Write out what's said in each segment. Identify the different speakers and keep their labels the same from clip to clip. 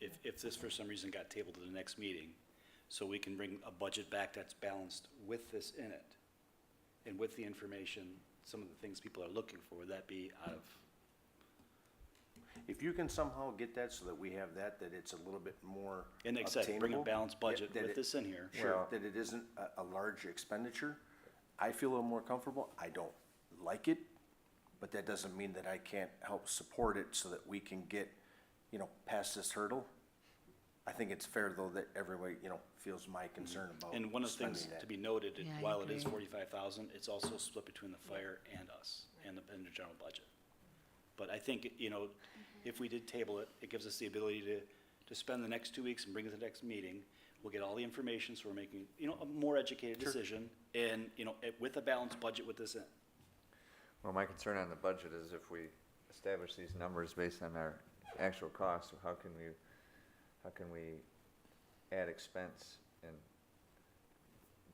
Speaker 1: if this for some reason got tabled to the next meeting, so we can bring a budget back that's balanced with this in it, and with the information, some of the things people are looking for, would that be out of,
Speaker 2: If you can somehow get that so that we have that, that it's a little bit more
Speaker 1: and like I said, bring a
Speaker 2: obtainable,
Speaker 1: balanced
Speaker 2: yeah,
Speaker 1: budget
Speaker 2: that
Speaker 1: with
Speaker 2: it-
Speaker 1: this in here.
Speaker 2: Sure, that it isn't a, a large expenditure. I feel a little more comfortable. I don't like it, but that doesn't mean that I can't help support it so that we can get, you know, past this hurdle. I think it's fair though that everybody, you know, feels my concern
Speaker 3: Oh,
Speaker 2: about
Speaker 1: And one of the things
Speaker 2: spending that.
Speaker 1: to be noted, it-
Speaker 4: Yeah, I
Speaker 1: while it is
Speaker 4: agree.
Speaker 1: forty-five thousand, it's also split between the fire and us, and the, and the general budget. But I think, you know, if we did table it, it gives us the ability to, to spend the next two weeks and bring it to the next meeting. We'll get all the information, so we're making, you know, a more educated decision, and, you know, eh, with a balanced budget with this uh, in.
Speaker 3: Well, my concern on the budget is if we establish these numbers based on our actual costs, how can we, how can we add expense and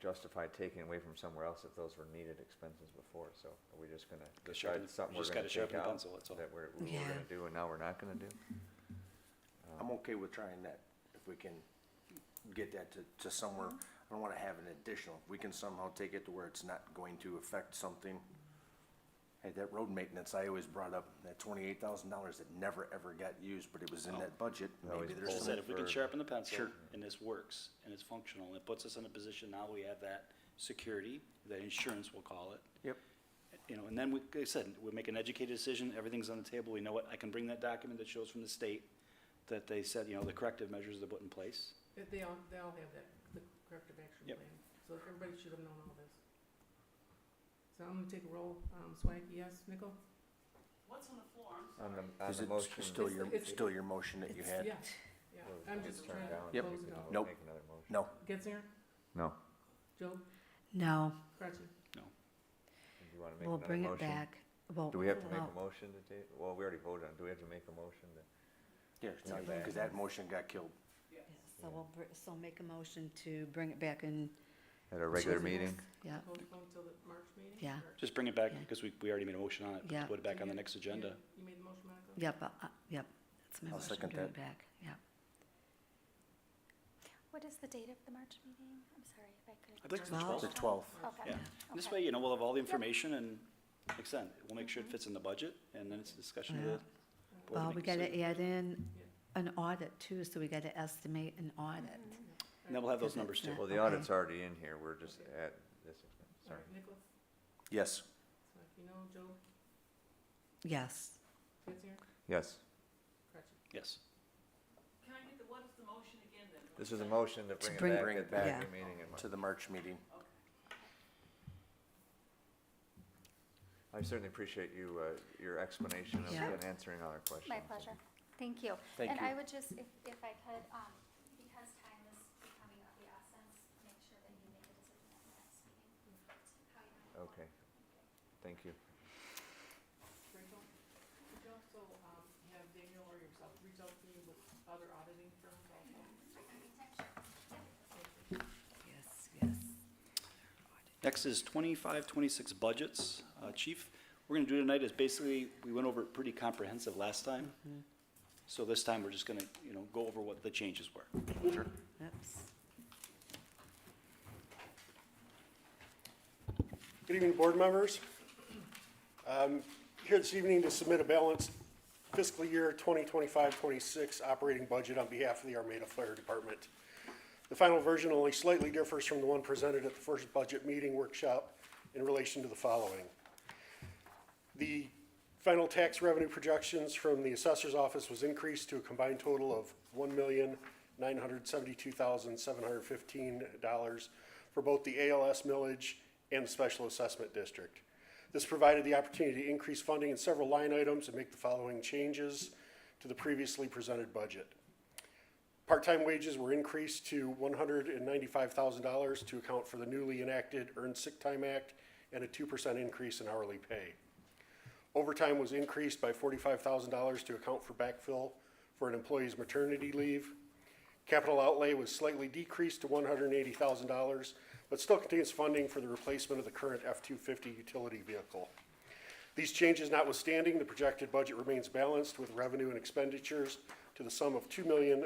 Speaker 3: justify taking away from somewhere else if those were needed expenses before? So are we just gonna
Speaker 1: Gotta sharpen
Speaker 3: decide
Speaker 1: the-
Speaker 3: something
Speaker 1: you
Speaker 3: we're
Speaker 1: just
Speaker 3: gonna
Speaker 1: gotta sharpen
Speaker 3: take
Speaker 1: the
Speaker 3: out?
Speaker 1: pencil, that's all.
Speaker 3: That we're, we
Speaker 4: Yeah.
Speaker 3: we're gonna do and now we're not gonna do?
Speaker 2: I'm okay with trying that, if we can get that to, to somewhere, I don't wanna have an additional, if we can somehow take it to where it's not going to affect something. Hey, that road maintenance I always brought up, that twenty-eight thousand dollars that never, ever got used, but it was in that budget,
Speaker 3: Always
Speaker 2: maybe
Speaker 1: Paul
Speaker 2: there's
Speaker 1: said,
Speaker 2: some.
Speaker 1: if we can
Speaker 3: for-
Speaker 1: sharpen the pencil,
Speaker 2: Sure.
Speaker 1: and this works, and it's functional, and it puts us in a position now, we have that security, that insurance, we'll call it.
Speaker 2: Yep,
Speaker 1: you know, and then we, like I said, we make an educated decision, everything's on the table, we know what, I can bring that document that shows from the state that they said, you know, the corrective measures they put in place.
Speaker 5: But They all, they all have that, the corrective action
Speaker 1: Yep.
Speaker 5: plan, so everybody should have known all this. So I'm gonna take a roll, um, Swag, yes, Nickel?
Speaker 6: What's on the floor? I'm sorry.
Speaker 3: On the, on
Speaker 2: is
Speaker 3: the
Speaker 2: it
Speaker 3: motion.
Speaker 2: still your,
Speaker 5: It's-
Speaker 2: still your motion that you
Speaker 4: it's-
Speaker 2: had?
Speaker 5: Yeah, yeah,
Speaker 3: we'll-
Speaker 5: I'm
Speaker 3: we'll
Speaker 5: just
Speaker 3: turn
Speaker 5: trying
Speaker 3: it
Speaker 5: to
Speaker 3: down and
Speaker 2: Yep.
Speaker 3: we
Speaker 5: close it
Speaker 3: can
Speaker 5: out.
Speaker 3: all
Speaker 2: Nope.
Speaker 3: Make another motion.
Speaker 2: No,
Speaker 5: Getzner,
Speaker 3: No.
Speaker 5: Joe,
Speaker 4: No,
Speaker 5: Cratchit,
Speaker 3: Do you wanna make
Speaker 4: we'll
Speaker 3: another
Speaker 4: bring it
Speaker 3: motion?
Speaker 4: back. Well,
Speaker 3: Do we have to make
Speaker 4: well,
Speaker 3: a motion to take, well, we already voted on, it. do we have to make a motion to?
Speaker 2: yeah,
Speaker 3: Yeah, back.
Speaker 2: cause that motion got killed.
Speaker 4: yeah, So we'll, br- so make a motion to bring it back in,
Speaker 3: At a regular
Speaker 4: Susan.
Speaker 3: meeting?
Speaker 4: yeah,
Speaker 5: postpone till the March meeting?
Speaker 4: Yeah.
Speaker 5: or-
Speaker 1: Just bring it back,
Speaker 4: Yeah.
Speaker 1: because we, we already made a motion on it,
Speaker 4: Yeah.
Speaker 1: put it back
Speaker 5: So
Speaker 1: on the
Speaker 5: you-
Speaker 1: next agenda.
Speaker 5: you- You made the motion, Monica?
Speaker 4: yep, uh, uh, yep. That's my
Speaker 2: I'll
Speaker 4: motion,
Speaker 2: second
Speaker 4: bring it
Speaker 2: that.
Speaker 4: back, yeah.
Speaker 7: What is the date of the March meeting? I'm sorry if I could.
Speaker 1: I'd like to
Speaker 4: Well-
Speaker 1: twelve.
Speaker 2: The twelfth,
Speaker 7: Okay.
Speaker 1: Yeah, And this
Speaker 7: Okay.
Speaker 1: way, you know, we'll have all the information and, like I said, we'll make sure it fits in the budget, and then it's discussion of the.
Speaker 4: Yeah.
Speaker 1: board
Speaker 4: Well,
Speaker 1: to
Speaker 4: we
Speaker 1: make a
Speaker 4: gotta
Speaker 1: decision.
Speaker 4: add in an audit too, so we gotta estimate an audit.
Speaker 7: Mm-hmm.
Speaker 1: And then we'll have those numbers too.
Speaker 3: Well, the
Speaker 4: Okay.
Speaker 3: audit's already in here, we're just at this expense,
Speaker 5: All
Speaker 3: sorry.
Speaker 5: right, Nicholas,
Speaker 2: yes,
Speaker 5: Swag, you know, Joe,
Speaker 4: Yes,
Speaker 5: Getzner,
Speaker 3: Yes,
Speaker 5: Cratchit.
Speaker 1: Yes,
Speaker 6: Can I get the, what is the motion again then?
Speaker 3: this is a motion to
Speaker 4: bring-
Speaker 3: bring it back.
Speaker 2: bring
Speaker 3: at
Speaker 2: it
Speaker 3: the
Speaker 4: back.
Speaker 3: regular meeting in March.
Speaker 2: to the March meeting.
Speaker 3: I certainly appreciate you, uh, your explanation of
Speaker 4: Sure.
Speaker 3: and answering all our questions.
Speaker 7: My pleasure. Thank you.
Speaker 2: Thank
Speaker 7: And
Speaker 2: you.
Speaker 7: I would just, if, if I could, um, because time is becoming of the essence, make sure that you make a decision at the next meeting. How you want to go.
Speaker 3: Okay, thank you.
Speaker 5: Rachel, could you also, um, have Daniel or yourself reach out to me with other auditing firms also?
Speaker 4: yes, yes.
Speaker 1: Next is 25, 26 budgets. Uh, Chief, we're gonna do tonight is basically, we went over it pretty comprehensive last time. So this time, we're just gonna, you know, go over what the changes were.
Speaker 4: Oops.
Speaker 8: Good evening, board members. I'm here this evening to submit a balanced fiscal year 2025-26 operating budget on behalf of the Armada Fire Department. The final version only slightly differs from the one presented at the first budget meeting workshop in relation to the following. The final tax revenue projections from the assessor's office was increased to a combined total of one million, nine hundred seventy-two thousand, seven hundred fifteen dollars for both the ALS millage and the special assessment district. This provided the opportunity to increase funding in several line items and make the following changes to the previously presented budget. Part-time wages were increased to one hundred and ninety-five thousand dollars to account for the newly enacted Earned Sick Time Act and a two percent increase in hourly pay. Overtime was increased by forty-five thousand dollars to account for backfill for an employee's maternity leave. Capital outlay was slightly decreased to one hundred and eighty thousand dollars, but still contains funding for the replacement of the current F-250 utility vehicle. These changes notwithstanding, the projected budget remains balanced with revenue and expenditures to the sum of two million,